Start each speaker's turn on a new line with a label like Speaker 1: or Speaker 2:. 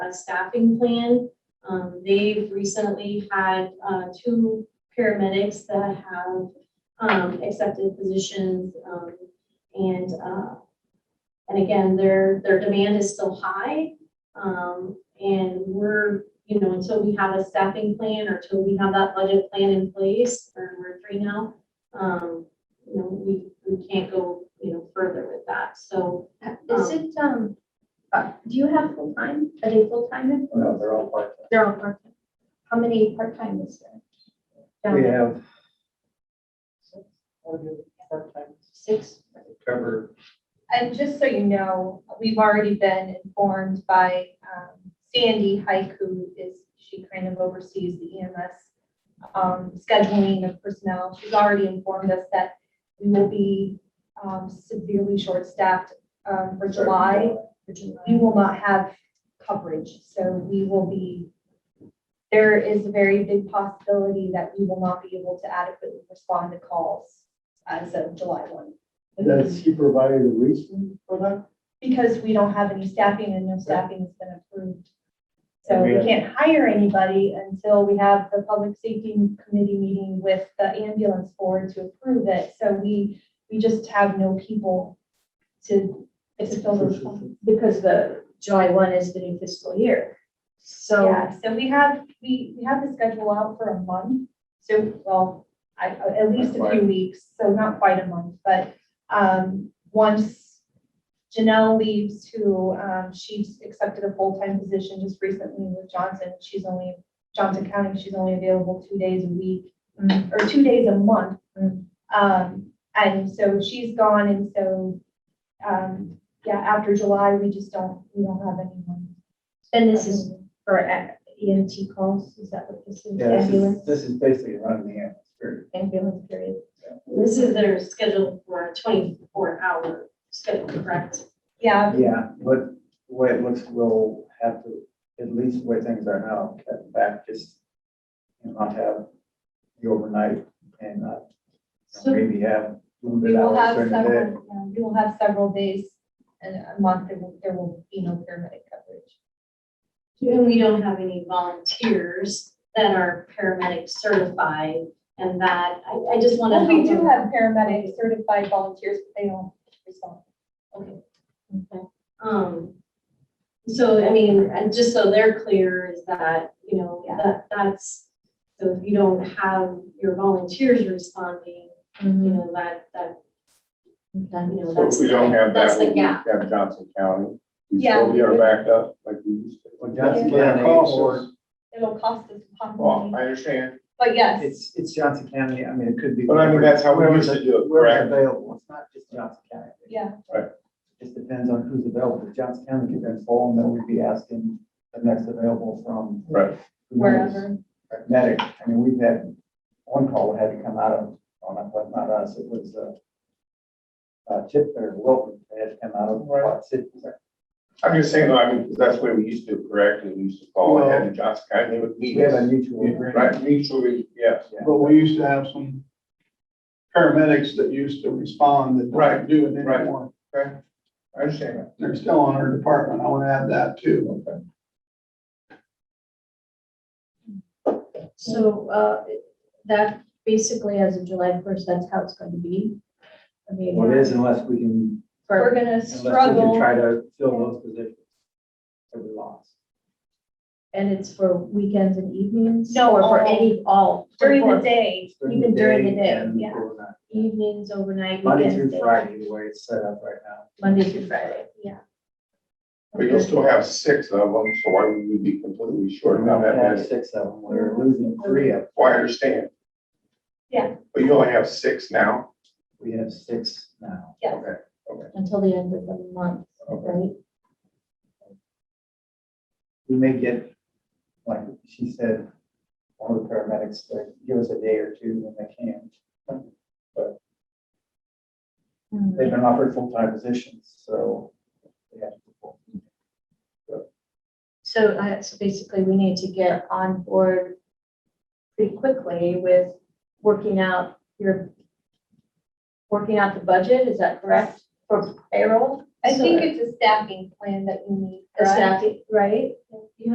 Speaker 1: uh, staffing plan. Um, they've recently had, uh, two paramedics that have, um, accepted positions, um, and, uh, and again, their, their demand is still high. Um, and we're, you know, until we have a staffing plan or till we have that budget plan in place, or we're three now, um, you know, we, we can't go, you know, further with that, so,
Speaker 2: Uh, Is it, um, uh, do you have full-time, are they full-time
Speaker 3: No,
Speaker 2: employees?
Speaker 3: they're all part-time.
Speaker 2: They're all part-time. How many part-time is there?
Speaker 3: We
Speaker 2: Down
Speaker 3: have
Speaker 2: Six.
Speaker 3: covered,
Speaker 4: And just so you know, we've already been informed by um, Sandy Hike, who is, she kind of oversees the EMS um, scheduling of personnel. She's already informed us that we will be um, severely short-staffed um, for July. We will not have coverage, so we will be, there is a very big possibility that we will not be able to adequately respond to calls as of July one.
Speaker 5: Does he provide a reason for that?
Speaker 4: Because we don't have any staffing and no staffing has been approved. So we
Speaker 5: Yeah.
Speaker 4: can't hire anybody until we have the public safety committee meeting with the ambulance board to approve it. So we, we just have no people to, to fill those. spots.
Speaker 2: Because the July one is the new fiscal year. So,
Speaker 4: Yeah, so we have, we, we have the schedule out for a month. So, well, I, at least a few
Speaker 3: Right.
Speaker 4: weeks, so not quite a month, but, um, once Janelle leaves who, um, she's accepted a full-time position just recently with Johnson. She's only, Johnson County, she's only available two days a week mm, or two days a month.
Speaker 2: Mm.
Speaker 4: Um, and so she's gone and so, um, yeah, after July, we just don't, we don't have anyone.
Speaker 2: and this is for a- EMT calls, is that what this is?
Speaker 3: yeah, this is,
Speaker 2: Ambulance-
Speaker 3: this is basically running the ambulance, period.
Speaker 2: Ambulance period.
Speaker 1: This is their schedule for a twenty-four hour schedule, correct?
Speaker 4: Yeah,
Speaker 3: Yeah, but the way it looks, we'll have to, at least the way things are now, cut back, just you know, not have the overnight and not you know,
Speaker 4: So
Speaker 3: maybe have
Speaker 4: we
Speaker 3: limited
Speaker 4: will have
Speaker 3: hours during
Speaker 4: several,
Speaker 3: the day.
Speaker 4: yeah, we will have several days and a month, there will, there will be no paramedic coverage.
Speaker 1: And we don't have any volunteers that are paramedic certified and that, I, I just want
Speaker 4: Well,
Speaker 1: to.
Speaker 4: we do have paramedic certified volunteers, but they don't respond.
Speaker 1: Um, so, I mean, and just so they're clear is that, you know,
Speaker 4: Yeah.
Speaker 1: that, that's, so if you don't have your volunteers responding, you
Speaker 2: Mm-hmm.
Speaker 1: know, that, that,
Speaker 2: Okay.
Speaker 1: you know,
Speaker 6: So
Speaker 1: that's.
Speaker 6: if we don't have
Speaker 1: that's
Speaker 6: that,
Speaker 1: the
Speaker 6: we
Speaker 1: gap.
Speaker 6: have Johnson County. We
Speaker 4: Yeah,
Speaker 6: still
Speaker 4: we
Speaker 6: are
Speaker 4: would.
Speaker 6: backed up like we used to.
Speaker 3: Well, Johnson
Speaker 6: Yeah.
Speaker 3: County
Speaker 6: Costs us.
Speaker 3: or,
Speaker 4: It'll cost us
Speaker 6: Well,
Speaker 4: possibly,
Speaker 6: Oh, I understand,
Speaker 4: but yes,
Speaker 3: it's, it's Johnson County, I mean, it could be.
Speaker 6: but I mean, that's how we
Speaker 3: wherever
Speaker 6: used
Speaker 3: the-
Speaker 6: to do it,
Speaker 3: Wherever
Speaker 6: correct?
Speaker 3: available, it's not just Johnson County.
Speaker 4: yeah,
Speaker 3: Just depends on who's available. If Johnson County could then fall, and then we'd be asking the next available from.
Speaker 6: Right.
Speaker 3: who knows,
Speaker 4: wherever.
Speaker 3: Medic. I mean, we've had, one call had to come out of, oh, not, but not us, it was, uh, uh, Chip or Wilton, they had to come out of
Speaker 6: Right.
Speaker 3: Quad City.
Speaker 6: I'm just saying, though, I mean, because that's the way we used to, do it, correct? And we used to call
Speaker 7: Well-
Speaker 6: ahead to Johnson County, they would
Speaker 3: We
Speaker 6: meet
Speaker 3: have a
Speaker 6: us.
Speaker 3: mutual agreement.
Speaker 6: Right, mutually, yes.
Speaker 7: But we used to have some paramedics that used to respond that
Speaker 6: Right,
Speaker 7: don't do it
Speaker 6: right.
Speaker 7: anymore.
Speaker 6: I understand that.
Speaker 7: They're still on our department. I want to add that too.
Speaker 2: So, uh, that basically as of July first, that's how it's going to be. I mean.
Speaker 3: Well, it is unless we can,
Speaker 4: We're
Speaker 2: For,
Speaker 4: gonna
Speaker 3: unless we can
Speaker 4: struggle,
Speaker 3: try to fill those positions that we lost.
Speaker 2: and it's for weekends and evenings?
Speaker 4: No,
Speaker 2: Or for
Speaker 4: all.
Speaker 2: any, all?
Speaker 4: during the day,
Speaker 2: Even during the day,
Speaker 3: and
Speaker 4: yeah.
Speaker 3: overnight.
Speaker 2: Evenings, overnight,
Speaker 3: Monday
Speaker 2: weekends.
Speaker 3: through
Speaker 2: day-
Speaker 3: Friday, the way it's set up right now.
Speaker 2: Monday through Friday.
Speaker 4: yeah.
Speaker 6: But you'll still have six of them, so why would we be completely short
Speaker 3: We're
Speaker 6: about
Speaker 3: not
Speaker 6: that
Speaker 3: have
Speaker 6: many?
Speaker 3: six of them, we're losing three of them.
Speaker 6: Well, I understand.
Speaker 4: Yeah.
Speaker 6: But you only have six now?
Speaker 3: We have six now.
Speaker 4: Yes.
Speaker 6: Okay.
Speaker 2: Until the end of the month, right?
Speaker 3: We may get, like she said, one of the paramedics to give us a day or two when they can.
Speaker 2: Hmm.
Speaker 3: They've been offered full-time positions, so they have to. perform.
Speaker 2: So, uh, so basically we need to get on board pretty quickly with working out your, working out the budget, is that correct? For payroll?
Speaker 4: I think it's a staffing plan that you need,
Speaker 2: A
Speaker 4: correct?
Speaker 2: staffing, right?